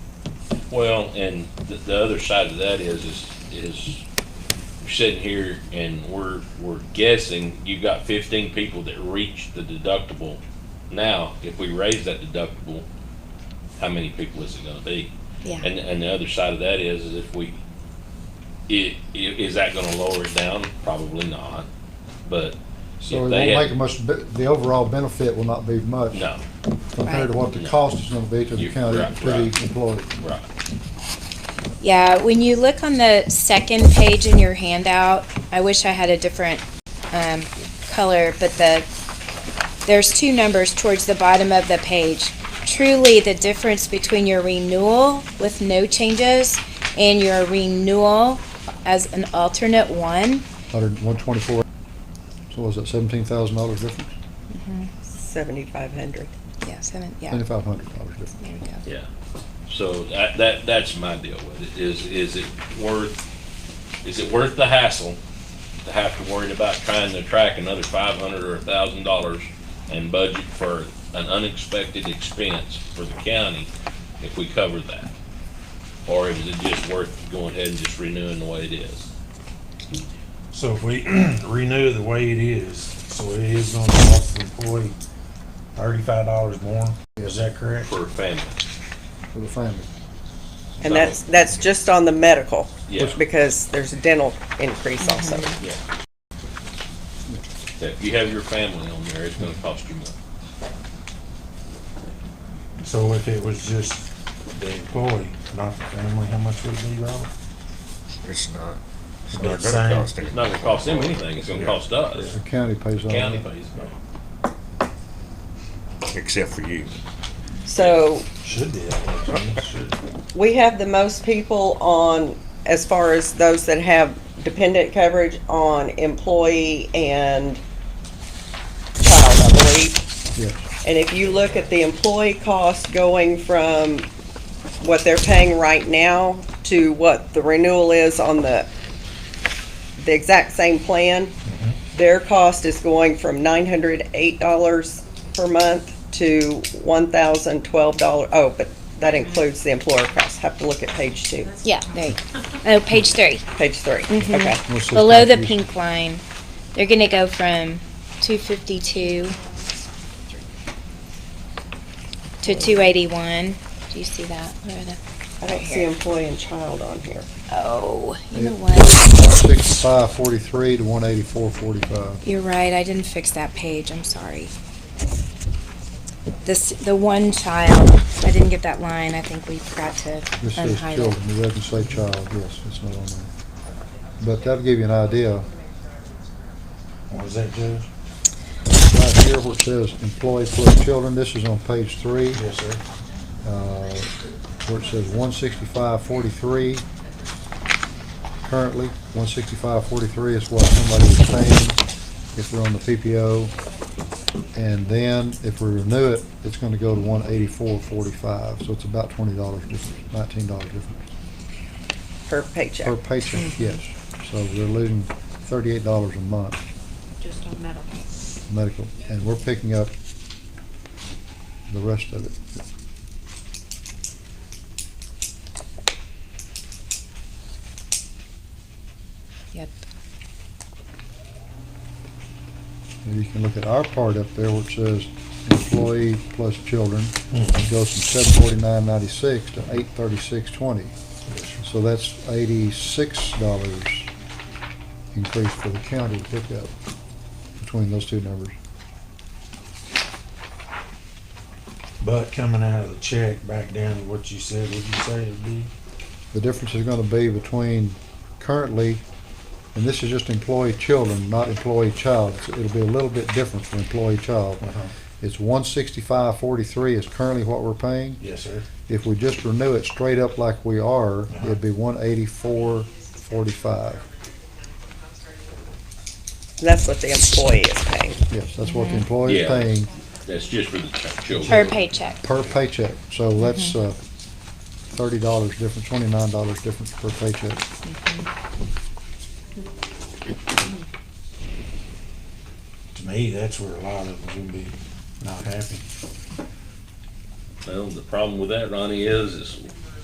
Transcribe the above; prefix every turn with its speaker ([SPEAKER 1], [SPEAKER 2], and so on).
[SPEAKER 1] Well, and the, the other side of that is, is, is you're sitting here and we're, we're guessing, you've got fifteen people that reach the deductible. Now, if we raise that deductible, how many people is it gonna be?
[SPEAKER 2] Yeah.
[SPEAKER 1] And, and the other side of that is, is if we, i- i- is that gonna lower it down? Probably not, but
[SPEAKER 3] So
[SPEAKER 1] if
[SPEAKER 3] it won't
[SPEAKER 1] they
[SPEAKER 3] make
[SPEAKER 1] had,
[SPEAKER 3] much, be- the overall benefit will not be much
[SPEAKER 1] no,
[SPEAKER 3] compared to what the
[SPEAKER 1] Right.
[SPEAKER 3] cost is gonna be to the
[SPEAKER 1] You're
[SPEAKER 3] county,
[SPEAKER 1] right,
[SPEAKER 3] to the
[SPEAKER 1] right.
[SPEAKER 3] employee.
[SPEAKER 1] right,
[SPEAKER 2] Yeah, when you look on the second page in your handout, I wish I had a different um, color, but the, there's two numbers towards the bottom of the page. Truly, the difference between your renewal with no changes and your renewal as an alternate one,
[SPEAKER 3] Hundred, one twenty-four, so was that seventeen thousand dollars difference?
[SPEAKER 4] Seventy-five hundred.
[SPEAKER 2] yeah, seven, yeah,
[SPEAKER 3] Twenty-five hundred dollars difference.
[SPEAKER 2] there we go.
[SPEAKER 1] Yeah, so that, that, that's my deal with it, is, is it worth, is it worth the hassle to have to worry about trying to track another five hundred or a thousand dollars and budget for an unexpected expense for the county if we cover that? Or is it just worth going ahead and just renewing the way it is?
[SPEAKER 5] So if we renew the way it is, so it is gonna cost the employee thirty-five dollars more, is that correct?
[SPEAKER 1] For a family,
[SPEAKER 3] For the family.
[SPEAKER 1] So-
[SPEAKER 4] And that's, that's just on the medical,
[SPEAKER 1] yeah,
[SPEAKER 4] because there's a dental increase also.
[SPEAKER 1] yeah. If you have your family on there, it's gonna cost you more.
[SPEAKER 5] So if it was just the employee, not the family, how much would it be, Robert?
[SPEAKER 6] It's not. It's
[SPEAKER 5] About the
[SPEAKER 6] not gonna
[SPEAKER 5] same.
[SPEAKER 6] cost
[SPEAKER 1] It's
[SPEAKER 6] anything.
[SPEAKER 1] not gonna cost them anything, it's gonna cost us,
[SPEAKER 3] The county pays all
[SPEAKER 1] county
[SPEAKER 3] that.
[SPEAKER 1] pays.
[SPEAKER 6] Except for you.
[SPEAKER 4] So
[SPEAKER 5] Should be that way, shouldn't it? Should.
[SPEAKER 4] we have the most people on, as far as those that have dependent coverage on employee and child, I believe.
[SPEAKER 3] Yes,
[SPEAKER 4] And if you look at the employee cost going from what they're paying right now to what the renewal is on the, the exact same plan, their cost is going from nine hundred eight dollars per month to one thousand twelve dollar, oh, but that includes the employer cost. Have to look at page two,
[SPEAKER 2] Yeah, there you go. Oh, page three.
[SPEAKER 4] page three, okay.
[SPEAKER 3] What's the
[SPEAKER 2] Below the
[SPEAKER 3] contribution?
[SPEAKER 2] pink line, they're gonna go from two fifty-two to two eighty-one. Do you see that? Where are the,
[SPEAKER 4] I don't see employee and child on here.
[SPEAKER 2] oh, you know
[SPEAKER 3] Yeah.
[SPEAKER 2] what?
[SPEAKER 3] Sixty-five forty-three to one eighty-four forty-five.
[SPEAKER 2] You're right, I didn't fix that page, I'm sorry. This, the one child, I didn't get that line, I think we forgot to
[SPEAKER 3] This says
[SPEAKER 2] unhighlight.
[SPEAKER 3] children, it doesn't say child, yes, it's not on there. But that'll give you an idea,
[SPEAKER 5] What was that, Judge?
[SPEAKER 3] right here where it says employee plus children, this is on page three.
[SPEAKER 5] Yes, sir.
[SPEAKER 3] uh, where it says one sixty-five forty-three. Currently, one sixty-five forty-three is what somebody is paying if we're on the PPO. And then if we renew it, it's gonna go to one eighty-four forty-five, so it's about twenty dollars difference, nineteen dollars difference
[SPEAKER 4] Her
[SPEAKER 3] per
[SPEAKER 4] paycheck.
[SPEAKER 3] patient, yes. So they're losing thirty-eight dollars a month
[SPEAKER 7] just on metal.
[SPEAKER 3] medical, and we're picking up the rest of it.
[SPEAKER 2] Yep.
[SPEAKER 3] And you can look at our part up there where it says employee plus children. It goes from seven forty-nine ninety-six to eight thirty-six twenty. So that's eighty-six dollars increase for the county to pick up between those two numbers.
[SPEAKER 5] But coming out of the check, back down to what you said, would you say it'd be?
[SPEAKER 3] The difference is gonna be between currently, and this is just employee children, not employee child. It's- It'll be a little bit different for employee child. It's one sixty-five forty-three is currently what we're paying.
[SPEAKER 5] Yes, sir.
[SPEAKER 3] If we just renew it straight up like we are, it'd be one eighty-four forty-five.
[SPEAKER 4] That's what the employee is paying.
[SPEAKER 3] Yes, that's what the employer's
[SPEAKER 1] Yeah.
[SPEAKER 3] paying
[SPEAKER 1] That's just for the ch- children.
[SPEAKER 2] Per paycheck.
[SPEAKER 3] per paycheck. So that's uh, thirty dollars difference, twenty-nine dollars difference per paycheck.
[SPEAKER 5] To me, that's where a lot of them would be not happy.
[SPEAKER 1] Well, the problem with that, Ronnie, is, is